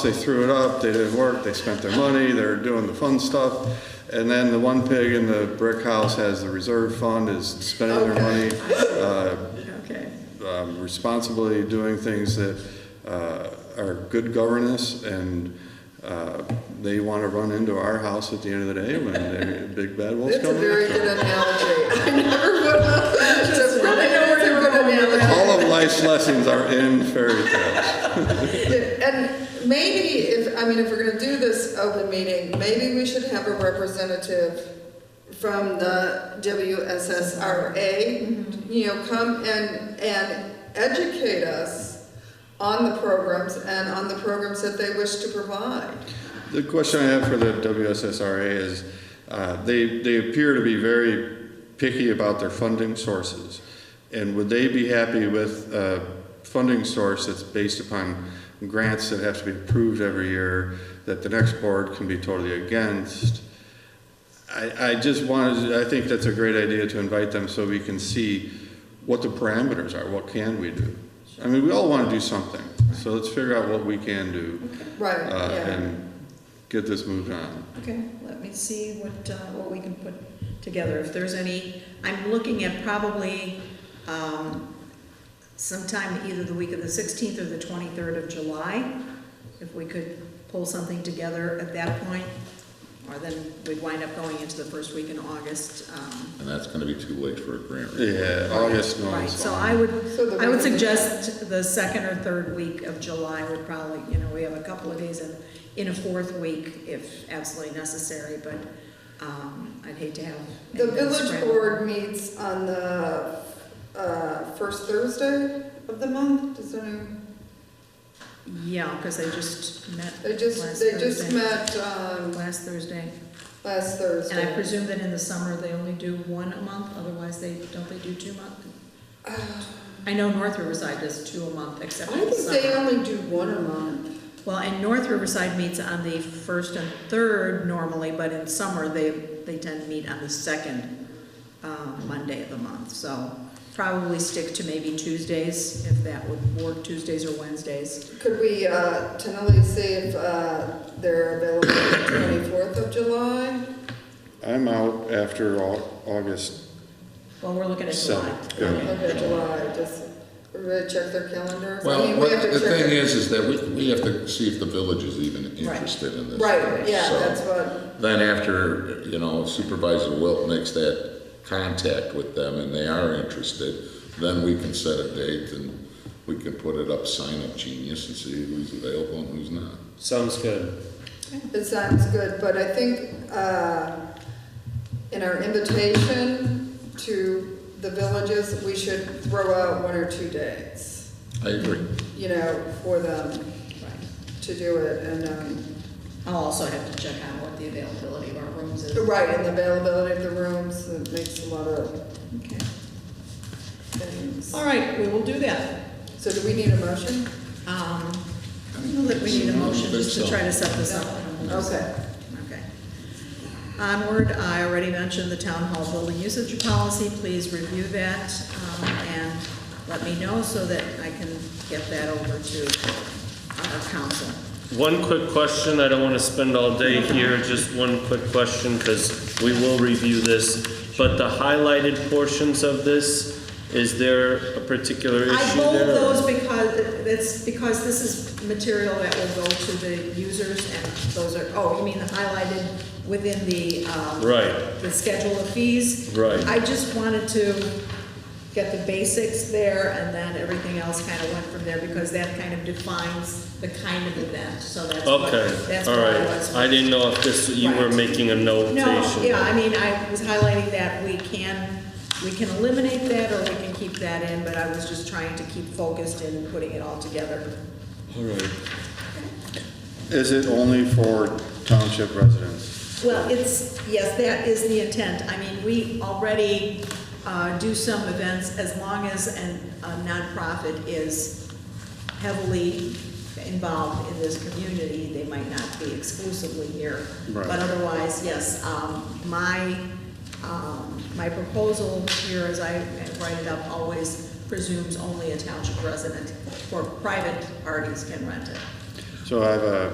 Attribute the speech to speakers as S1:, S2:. S1: They threw it up, they did work, they spent their money, they're doing the fun stuff. And then the one pig in the brick house has the reserve fund, is spending their money uh,
S2: Okay,
S1: um, responsibly, doing things that uh, are good governance, and uh, they want to run into our house at the end of the day when they're big bad wolves
S2: that's a
S1: coming
S2: very
S1: after
S2: good
S1: them.
S2: analogy. I never would have. It's a really it's a good analogy.
S1: All of life's lessons are in fairy tales.
S2: And maybe if, I mean, if we're gonna do this open meeting, maybe we should have a representative from the WSSRA, you know, come and, and educate us on the programs and on the programs that they wish to provide.
S1: The question I have for the WSSRA is, uh, they, they appear to be very picky about their funding sources. And would they be happy with a funding source that's based upon grants that have to be approved every year, that the next board can be totally against? I, I just wanted, I think that's a great idea to invite them so we can see what the parameters are, what can we do? I mean, we all want to do something, so let's figure out what we can do
S2: Right,
S1: uh,
S2: yeah.
S1: and get this moved on.
S3: Okay, let me see what, uh, what we can put together, if there's any, I'm looking at probably, um, sometime either the week of the sixteenth or the twenty-third of July, if we could pull something together at that point, or then we'd wind up going into the first week in August, um.
S4: And that's gonna be too late for a grant. review.
S1: Yeah, August no
S3: Right,
S1: one's
S3: so
S1: on.
S3: I would,
S2: So the
S3: I would
S2: week-
S3: suggest the second or third week of July would probably, you know, we have a couple of days in, in a fourth week if absolutely necessary, but, um, I'd hate to have.
S2: The
S3: anything
S2: village
S3: spread.
S2: board meets on the uh, first Thursday of the month, does anyone,
S3: Yeah, because they just met
S2: they just,
S3: Last
S2: they just
S3: Thursday.
S2: met um,
S3: last Thursday.
S2: last
S3: And I
S2: Thursday.
S3: presume that in the summer, they only do one a month, otherwise they, don't they do two month? I know North Riverside does two a month,
S2: Uh, I
S3: except in the
S2: think they
S3: summer.
S2: only do one a month.
S3: Well, and North Riverside meets on the first and third normally, but in summer, they, they tend to meet on the second uh, Monday of the month. So probably stick to maybe Tuesdays, if that would work, Tuesdays or Wednesdays.
S2: Could we uh, tentatively see if uh, they're available the twenty-fourth of July?
S1: I'm out after Au- August.
S3: Well, we're looking at
S1: So,
S3: July.
S1: yeah.
S2: Okay, July, just, we're gonna check their calendars. I mean,
S4: Well,
S2: we
S4: what-
S2: have to
S4: the
S2: check
S4: thing
S2: it.
S4: is, is that we, we have to see if the village is even
S3: Right.
S4: interested in this.
S2: Right, yeah,
S4: So,
S2: that's what,
S4: Then after, you know, Supervisor Wilt makes that contact with them and they are interested, then we can set a date and we can put it up, sign up genius and see who's available and who's not.
S5: Sounds good.
S2: it sounds good, but I think uh, in our invitation to the villages, we should throw out one or two days,
S4: I agree.
S2: you know, for them
S3: Right.
S2: to do it and, um,
S3: I'll also have to check out what the availability of our rooms is.
S2: right, and the availability of the rooms, it makes a lot of
S3: Okay.
S2: things.
S3: All right, we will do that.
S2: So do we need a motion?
S3: Um, I don't know that we need a motion just to try to set this up.
S2: Okay.
S3: Okay. Onward, I already mentioned the town hall building usage policy. Please review that um, and let me know so that I can get that over to our council.
S5: One quick question, I don't want to spend all day here, just one quick question, because we will review this. But the highlighted portions of this, is there a particular issue there?
S3: I bold those because, that's because this is material that will go to the users and those are, oh, you mean the highlighted within the, um,
S5: Right.
S3: the schedule of fees.
S5: Right.
S3: I just wanted to get the basics there and then everything else kind of went from there because that kind of defines the kind of event, so that's what,
S5: Okay,
S3: that's what
S5: all
S3: I
S5: right.
S3: was.
S5: I didn't know if this, you were
S3: Right.
S5: making a notation.
S3: No, yeah, I mean, I was highlighting that we can, we can eliminate that or we can keep that in, but I was just trying to keep focused in putting it all together.
S1: All right. Is it only for township residents?
S3: Well, it's, yes, that is the intent. I mean, we already uh, do some events as long as an- a nonprofit is heavily involved in this community. They might not be exclusively here.
S1: Right.
S3: But otherwise, yes, um, my, um, my proposal here, as I write it up, always presumes only a township resident or private parties can rent it.
S1: So I have a